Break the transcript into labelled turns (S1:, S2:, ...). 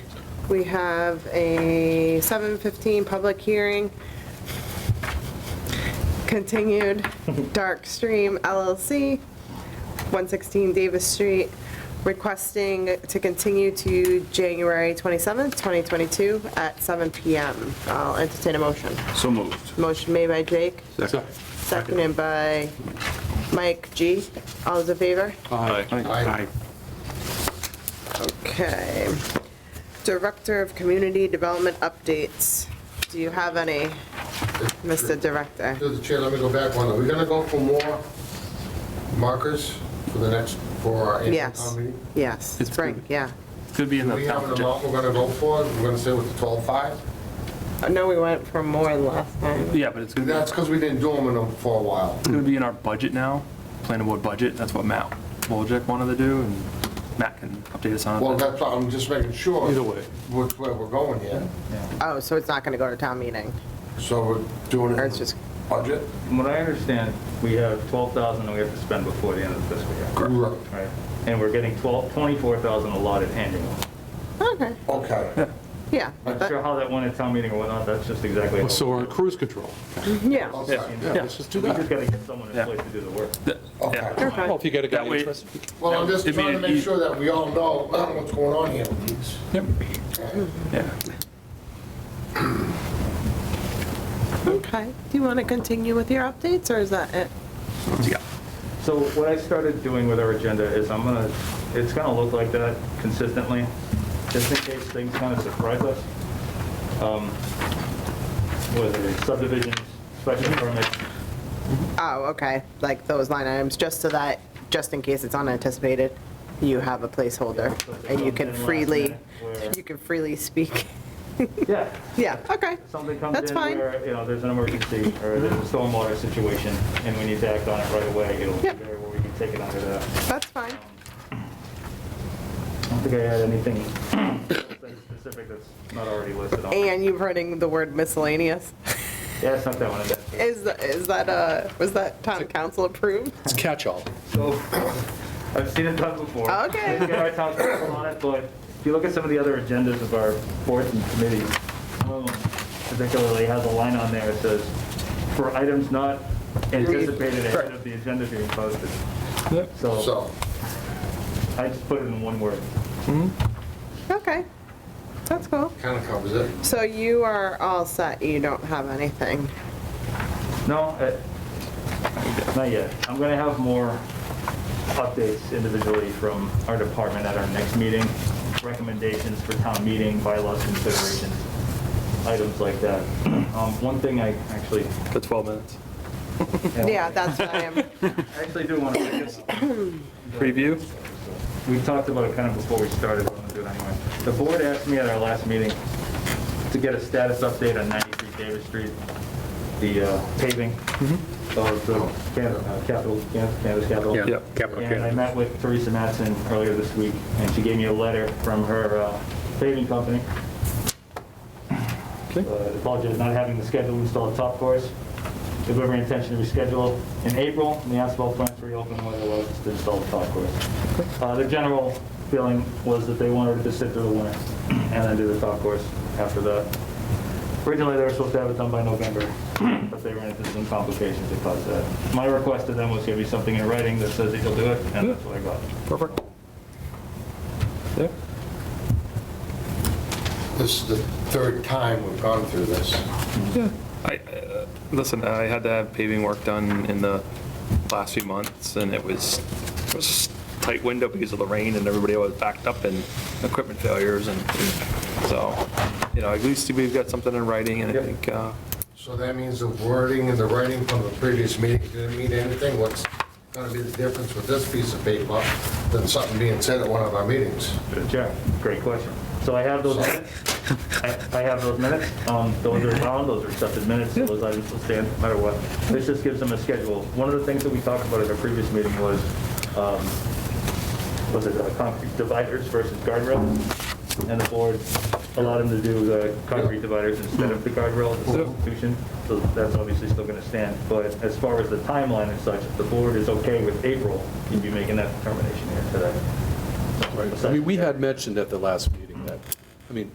S1: we have a 7:15 public hearing, continued, Dark Stream LLC, 116 Davis Street, requesting to continue to January 27th, 2022 at 7 PM. I'll entertain a motion.
S2: So moved.
S1: Motion made by Jake,
S2: Second.
S1: seconded by Mike G. All those in favor?
S2: Aye.
S1: Okay. Director of Community Development updates. Do you have any, Mr. Director?
S3: Through the chair, let me go back one. Are we gonna go for more markers for the next, for our annual
S1: Yes,
S3: town meeting?
S1: yes,
S2: It's
S1: spring,
S2: good.
S1: yeah.
S2: Could be in
S3: Do
S2: the
S3: we have an
S2: top.
S3: amount we're gonna go for? We're gonna say with the 12.5?
S1: I know Oh, we went for more last time.
S2: Yeah, but it's gonna be-
S3: That's because we didn't do them in them for a while.
S2: it's gonna be in our budget now, planning board budget, that's what Matt Wojcik wanted to do, and Matt can update us on
S3: Well,
S2: it.
S3: that's, why I'm just making sure.
S2: Either way.
S3: Which way we're going here.
S1: Oh, so it's not going to go to town meeting?
S3: So we're doing
S1: Or it's just-
S3: it budget?
S4: From what I understand, we have 12,000 that we have to spend before the end of the fiscal year.
S3: Correct.
S4: Right. And we're getting 12, 24,000 allotted annually.
S1: Okay,
S3: Okay.
S1: yeah.
S4: Not sure how that went at town meeting or whatnot, that's just exactly. how-
S5: So we're on cruise control.
S1: Yeah,
S3: Okay.
S5: Yeah, let's just do
S4: We just
S5: that.
S4: gotta get someone in
S2: Yeah.
S4: place to do the work.
S3: Okay.
S5: Well, if you got a guy
S2: That way-
S5: interested.
S3: Well, I'm just
S2: It'd be
S3: trying to
S2: an
S3: make
S2: eas-
S3: sure that we all know what's going on here with these.
S5: Yep.
S2: Yeah.
S1: okay. Do you want to continue with your updates, or is that it?
S2: Yeah.
S4: So what I started doing with our agenda is I'm gonna, it's gonna look like that consistently, just in case things kind of surprise us. Um, Whether it's subdivisions, special permits,
S1: Oh, okay, like those line items, just so that, just in case it's unanticipated, you have a placeholder, and you can freely, you can freely speak.
S4: yeah.
S1: Yeah, okay.
S4: Something comes
S1: That's
S4: in
S1: fine.
S4: where, you know, there's an emergency or there's a stormwater situation and we need to act on it right away, it'll be
S1: Yep.
S4: there where we can take it under that.
S1: That's fine.
S4: I don't think I had anything specific that's not already listed on.
S1: And you're putting the word miscellaneous.
S4: Yeah, it's not that one. it's-
S1: Is, tha- is that, uh, was that town council approved?
S5: It's catch-all.
S4: So, I've seen it done before.
S1: Okay.
S4: Get our town council on it, but if you look at some of the other agendas of our boards and committees, um, particularly has a line on there that says, for items not anticipated ahead of the agenda being posted. So,
S3: So,
S4: I just put it in one word.
S1: Okay, that's cool.
S3: kind of covers it.
S1: So you are all set, you don't have anything?
S4: No, uh, not yet. I'm gonna have more updates individually from our department at our next meeting, recommendations for town meeting, bylaws considerations, items like that. Um, One thing I actually,
S2: The 12 minutes.
S1: Yeah, that's what I am,
S4: I actually do want to,
S2: Preview?
S4: we talked about it kind of before we started, but I'm gonna do it anyway. The board asked me at our last meeting to get a status update on 93 Davis Street, the uh, paving of the Can- uh, capital, Can- Canvas Capital.
S2: Yeah.
S5: Capital
S4: And I met with Teresa Matson earlier this week, and she gave me a letter from her uh, paving company. Uh,
S5: Okay.
S4: Apologize not having the schedule installed top course. If we have any intention to reschedule in April, and the asphalt plant's reopened, whether it was to install the top course. Uh, The general feeling was that they wanted to sit through the winter and then do the top course after that. Originally, they were supposed to have it done by November, but they ran into some complications that caused that. My request to them was give me something in writing that says that you'll do it, and that's what I got.
S5: Perfect. Yeah.
S3: This is the third time we've gone through this.
S2: I, uh, listen, I had to have paving work done in the last few months, and it was, it was a tight window because of the rain, and everybody was backed up and equipment failures, and and so, you know, at least we've got something in writing, and I
S4: Yep.
S2: think, uh,
S3: So that means the wording and the writing from the previous meeting didn't mean anything? What's gonna be the difference with this piece of paper than something being said at one of our meetings?
S4: Good job. Great question. So I have those minutes. I I have those minutes. Um, Those are bound, those are accepted minutes, so those items will stand no matter what. This just gives them a schedule. One of the things that we talked about at our previous meeting was, um, was it uh, concrete dividers versus guardrail? And the board allowed them to do the concrete dividers instead of the guardrail at the substitution. So that's obviously still going to stand. But as far as the timeline and such, if the board is okay with April, you'd be making that determination here today.
S5: I mean, we had mentioned at the last meeting that